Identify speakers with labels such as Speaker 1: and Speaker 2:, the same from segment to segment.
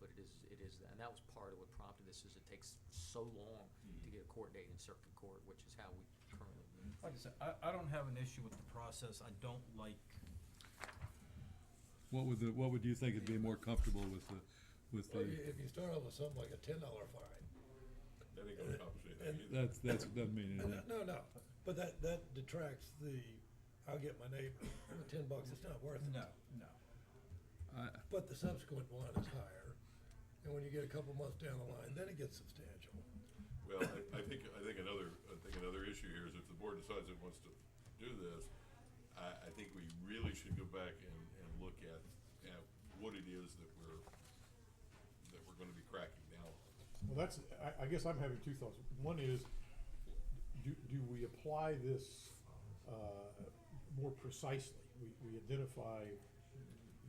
Speaker 1: but it is, it is, and that was part of what prompted this, is it takes so long to
Speaker 2: Mm-hmm.
Speaker 1: get a court date in circuit court, which is how we currently move.
Speaker 3: Like I said, I, I don't have an issue with the process. I don't like,
Speaker 4: What would the, what would you think would be more comfortable with the, with
Speaker 5: Well, you-
Speaker 4: the,
Speaker 5: if you start out with something like a ten dollar fine,
Speaker 6: That ain't gonna accomplish anything either.
Speaker 4: that's, that's, doesn't mean anything.
Speaker 5: no, no, but that, that detracts the, I'll get my neighbor, ten bucks, it's not worth it.
Speaker 3: no, no.
Speaker 4: I-
Speaker 5: But the subsequent one is higher, and when you get a couple months down the line, then it gets substantial.
Speaker 6: Well, I, I think, I think another, I think another issue here is if the board decides it wants to do this, I, I think we really should go back and, and look at, at what it is that we're, that we're gonna be cracking down on.
Speaker 2: Well, that's, I, I guess I'm having two thoughts. One is, do, do we apply this, uh, more precisely? We, we identify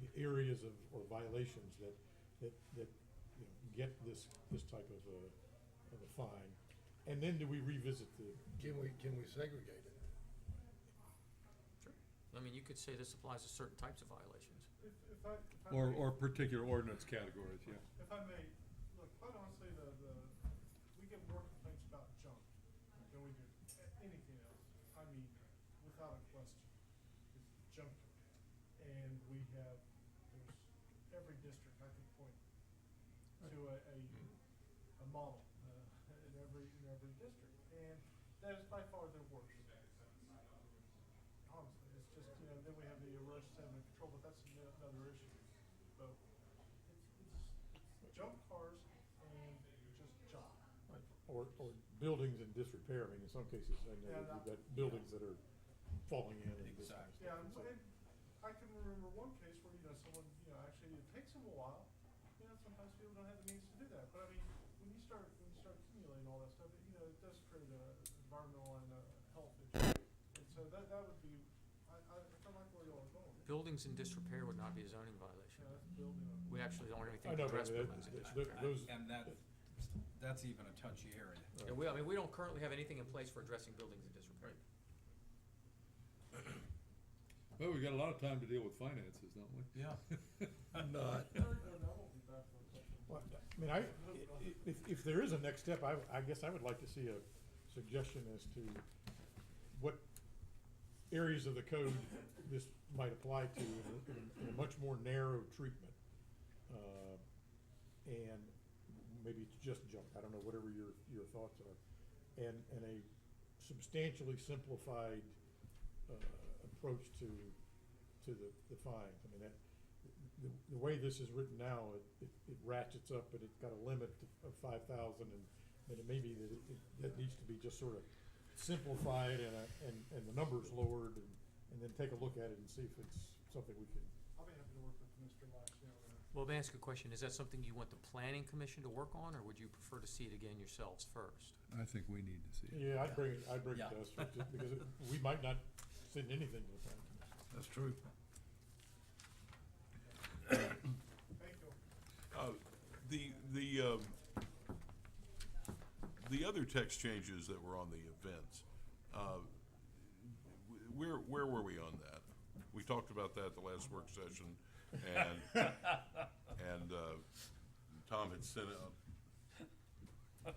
Speaker 2: the areas of, or violations that, that, that, you know, get this, this type of a, of a fine. And then do we revisit the,
Speaker 5: Can we, can we segregate it?
Speaker 1: Sure. I mean, you could say this applies to certain types of violations.
Speaker 7: If, if I, if I may,
Speaker 4: Or, or particular ordinance categories, yeah.
Speaker 7: if I may, look, quite honestly, the, the, we get more complaints about junk than we do a- anything else. I mean, without a question, it's junk. And we have, there's every district I could point to a, a, a model, uh, in every, in every district. And that is by far the worst. Honestly, it's just, you know, then we have the erosion sediment control, but that's ano- another issue. But it's, it's junk cars and just junk.
Speaker 2: or, or buildings in disrepair? I mean, in some cases, I know that you've got buildings that are falling in and this kind of stuff.
Speaker 7: Yeah, and, and I can remember one case where, you know, someone, you know, actually it takes them a while. You know, sometimes people don't have the means to do that, but I mean, when you start, when you start accumulating all that stuff, it, you know, it does create a environmental and a health issue. And so that, that would be, I, I, I don't like where y'all are going.
Speaker 1: Buildings in disrepair would not be a zoning violation.
Speaker 7: Yeah, that's building up.
Speaker 1: We actually don't have
Speaker 2: I
Speaker 1: anything to
Speaker 2: know, but
Speaker 1: address
Speaker 2: I mean,
Speaker 1: buildings
Speaker 2: that-
Speaker 1: in
Speaker 2: that-
Speaker 1: disrepair.
Speaker 2: those.
Speaker 3: And that, that's even a touchy area.
Speaker 1: Yeah, we, I mean, we don't currently have anything in place for addressing buildings in disrepair.
Speaker 4: Well, we've got a lot of time to deal with finances, don't we?
Speaker 3: Yeah.
Speaker 5: Not,
Speaker 7: Third, and I won't be back for a couple.
Speaker 2: Well, I mean, I, if, if there is a next step, I, I guess I would like to see a suggestion as to what areas of the code this might apply to in a- in a- in a much more narrow treatment. Uh, And maybe it's just junk, I don't know, whatever your, your thoughts are. And, and a substantially simplified uh, approach to, to the, the fines. I mean, that, the, the way this is written now, it, it it ratchets up, but it's got a limit of five thousand and, and it may be that it, it- that needs to be just sort of simplified and, uh, and, and the numbers lowered and, and then take a look at it and see if it's something we can.
Speaker 7: I'll be happy to work with Mr. Lash, you know,
Speaker 1: Well, may I ask a question? Is that something you want the planning commission to work on, or would you prefer to see it again yourselves first?
Speaker 4: I think we need to see. it.
Speaker 2: Yeah, I'd bring, it- I'd bring it
Speaker 3: Yeah.
Speaker 2: to us, just because it- we might not send anything to the planning commission.
Speaker 5: that's true.
Speaker 7: thank you.
Speaker 6: Uh, The, the, um, the other text changes that were on the events, uh, w- where, where were we on that? We talked about that at the last work session, and, and uh, Tom had sent out.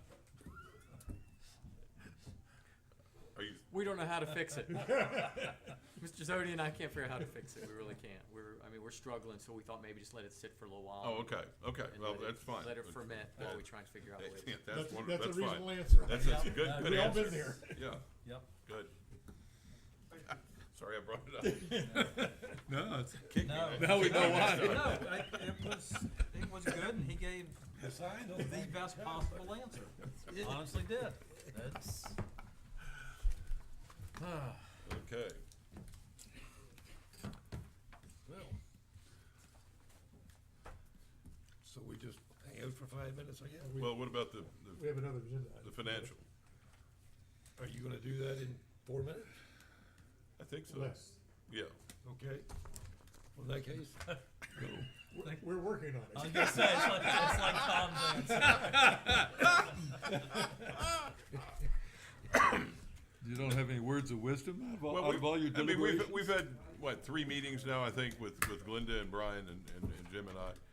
Speaker 6: Are you,
Speaker 1: We don't know how to fix it. Mr. Zodi and I can't figure out how to fix it. We really can't. We're, I mean, we're struggling, so we thought maybe just let it sit for a little while.
Speaker 6: oh, okay, okay,
Speaker 1: and
Speaker 6: well,
Speaker 1: let it-
Speaker 6: that's fine.
Speaker 1: Let it ferment while we try and figure out
Speaker 6: Yeah,
Speaker 1: what it is.
Speaker 6: That's, one-
Speaker 2: That's a
Speaker 6: that's fine.
Speaker 2: reasonable answer.
Speaker 6: That's, that's a good,
Speaker 3: Yeah.
Speaker 6: good
Speaker 2: We all been
Speaker 6: answer. Yeah,
Speaker 3: Yep.
Speaker 6: good.
Speaker 7: Thank you.
Speaker 6: Sorry I brought it up.
Speaker 4: No, it's,
Speaker 3: No.
Speaker 4: now we know
Speaker 3: No,
Speaker 4: why.
Speaker 3: I, it was, it was good and he gave the best possible answer. Honestly did. That's,
Speaker 6: Okay.
Speaker 5: Well. So we just hang out for five minutes, I guess?
Speaker 6: Well, what about the,
Speaker 2: We
Speaker 6: the,
Speaker 2: have another agenda. item.
Speaker 6: the financial?
Speaker 5: Are you gonna do that in four minutes?
Speaker 6: I think so.
Speaker 2: Less.
Speaker 6: Yeah.
Speaker 5: Okay. Well, in that case,
Speaker 2: We're, we're working on it.
Speaker 3: I was gonna say, it's like, it's like Tom's answer.
Speaker 4: You don't have any words of wisdom out of all-
Speaker 6: Well,
Speaker 4: out of all your
Speaker 6: we've- I mean, we've,
Speaker 4: deliberations?
Speaker 6: we've had, what, three meetings now, I think, with, with Glenda and Brian and, and and Jim and I.